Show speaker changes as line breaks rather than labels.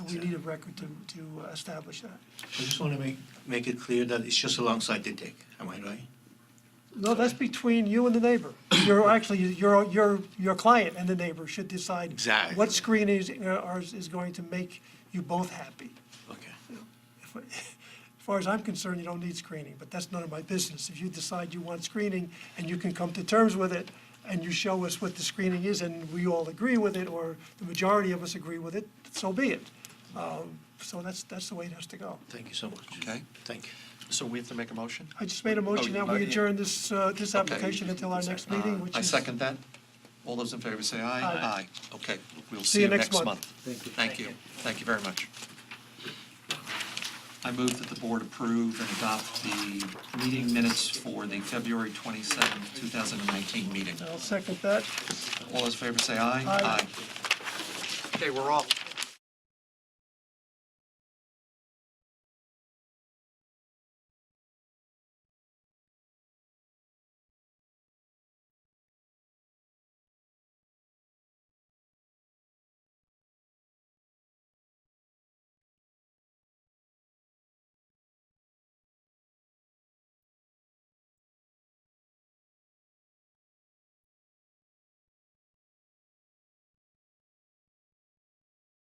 we need a record to, to uh, establish that.
I just want to make, make it clear that it's just alongside the deck, am I right?
No, that's between you and the neighbor. You're actually, your, your, your client and the neighbor should decide.
Exactly.
What screen is, uh, is, is going to make you both happy.
Okay.
If- As far as I'm concerned, you don't need screening, but that's none of my business. If you decide you want screening and you can come to terms with it, and you show us what the screening is, and we all agree with it, or the majority of us agree with it, so be it. Um, So that's, that's the way it has to go.
Thank you so much.
Okay.
Thank you.
So we have to make a motion?
I just made a motion
Oh, you
that we
might-
adjourn this, uh, this
Okay.
application until our next meeting, which is.
Uh, I second that. All those in favor say aye.
Aye.
Okay, we'll see you next month. Thank you. Thank you. Thank you very much. I move that the board approve and adopt the meeting minutes for the February 27th, 2019 meeting.
I'll second that.
All those in favor say aye.
Aye.
Okay, we're off.